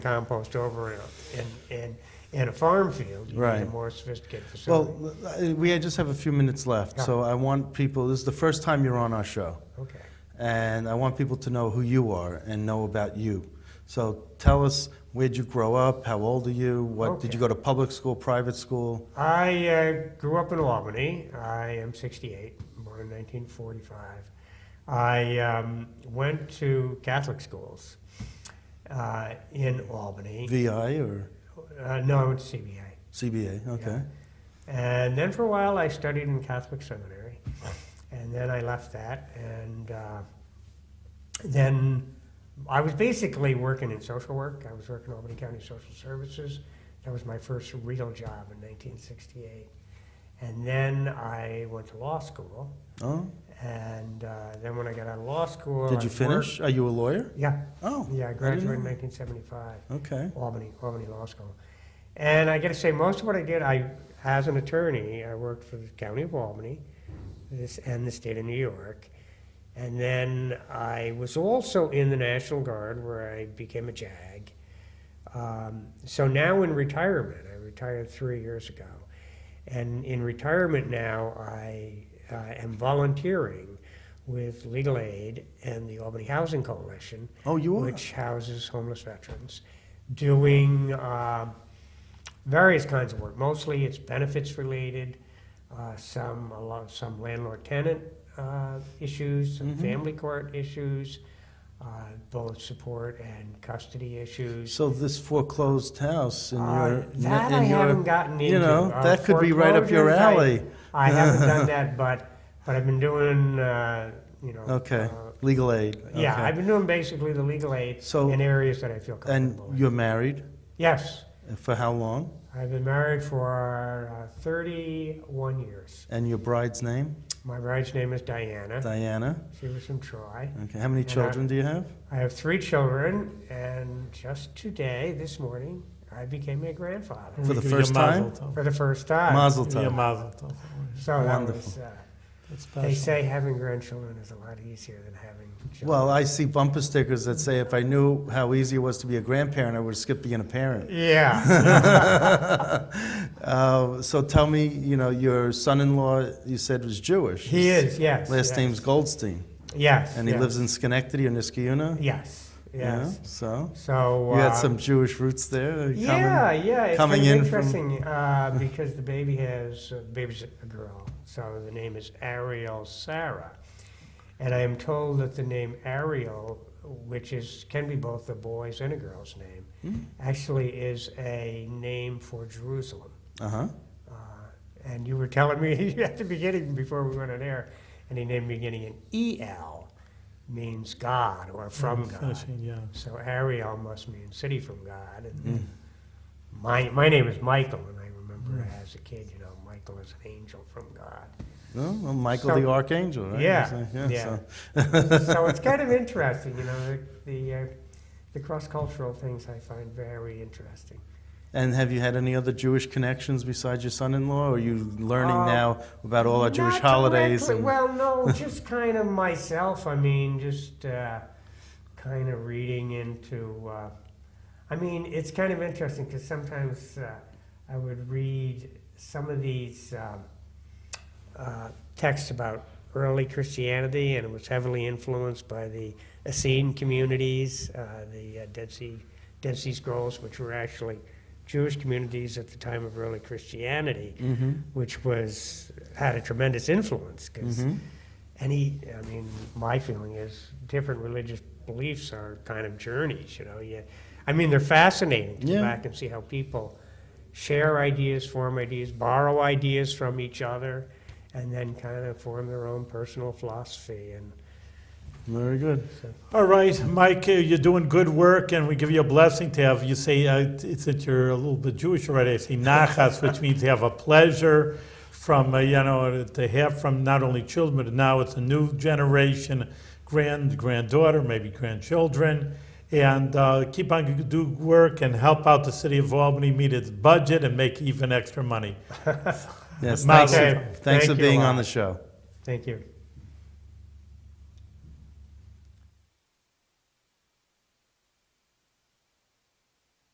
compost over in, in, in a farm field. You need a Right. more sophisticated facility. Well, uh, we just have a few minutes left, so I want people, this is the first time you're on our show, Okay. and I want people to know who you are and know about you. So tell us, where'd you grow up? How old are you? What, did you go to public school, private school? I uh, grew up in Albany. I am 68, born in 1945. I um, went to Catholic schools uh, in Albany. VI or Uh, no, I went to CBA. CBA? Okay. And then for a while, I studied in Catholic seminary, and then I left that, and uh, then I was basically working in social work. I was working Albany County Social Services. That was my first real job in 1968. And then I went to law school, Oh, and uh, then when I got out of law school, did I you worked- finish? Are you a lawyer? Yeah, Oh. yeah, I didn't graduated in know. 1975. Okay. Albany, Albany Law School. And I got to say, most of what I did, I, as an attorney, I worked for the county of Albany this, and the state of New York. And then I was also in the National Guard where I became a JAG. Um, so now in retirement, I retired three years ago. And in retirement now, I uh, am volunteering with Legal Aid and the Albany Housing Coalition Oh, you are? which houses homeless veterans, doing uh, various kinds of work. Mostly it's benefits related, uh, some a lot, some landlord tenant uh, issues, some Mm-hmm. family court issues, uh, both support and custody issues. So this foreclosed house in Uh, your... that in I your- haven't gotten into. You know, Uh, that could be right up your foreclosures, alley. I, I haven't done that, but but I've been doing uh, you know. Okay, uh, legal aid. yeah, okay. I've been doing basically the legal aid So- in areas that I feel And comfortable. you're married? uh, Yes, For how long? I've been married for uh, 31 years. And your bride's name? My bride's name is Diana. Diana. She was from Troy. Okay. How many And I- children do you have? I have three children, and just today, this morning, I became a grandfather For the Give you a first mazel time? tov. for the first time. Mazel Give you a tov. mazel tov. So that Wonderful. was, uh, That's they special. say having grandchildren is a lot easier than having children. Well, I see bumper stickers that say, "If I knew how easy it was to be a grandparent, I would skip being a parent." yeah. Uh, so tell me, you know, your son-in-law you said was Jewish. He is, yes. Last yes. name's Goldstein, Yes. and he yes. lives in Schenectady or Niskayuna. Yes, Yeah, yes. So So. you had uh, some Jewish roots there. uh, coming- Yeah, yeah, it's coming kind in of from- interesting uh, because the baby has uh, the baby's a girl, so the name is Ariel Sarah, and I am told that the name Ariel, which is can be both a boy's and a girl's name, Hmm. actually is a name for Jerusalem. Uh-huh. Uh, and you were telling me at the beginning before we went on air, and he named beginning in E L means God or Mm, from God. Finishing, yeah. So Ariel must mean city from God. And my, my name is Michael, and I remember as a kid, you know, Michael is an angel from God. Well, well, Michael So- the Archangel, right? Yeah, So, yeah. so- so it's kind of interesting, you know, the, the, uh, the cross cultural things I find very interesting. And have you had any other Jewish connections besides your son-in-law? Or are you learning Uh, now about all our Jewish Not holidays? directly- and- Well, no, just kind of myself. I mean, just uh, kind of reading into. Uh, I mean, it's kind of interesting because sometimes uh, I would read some of these um, uh, texts about early Christianity, and it was heavily influenced by the Essene communities, uh, the uh, Dead Sea Dead Sea Scrolls, which were actually Jewish communities at the time of early Christianity, Mm-hmm, which was had a tremendous influence because mm-hmm. any, I mean, my feeling is different religious beliefs are kind of journeys. You know, you, I mean, they're fascinating to Yeah. go back and see how people share ideas, form ideas, borrow ideas from each other, and then kind of form their own personal philosophy. And Very good. All right, Mike, uh, you're doing good work, and we give you a blessing to have, you say, uh, it's that you're a little bit Jewish already, I say nachas, which means to have a pleasure from, uh, you know, to have from not only children, but now it's a new generation, grand, granddaughter, maybe grandchildren, and uh, keep on g- do work and help out the city of Albany meet its budget and make even extra money. Yes, thanks, Mazel for- tov. thanks Thank for you a being lot. on the show. thank you.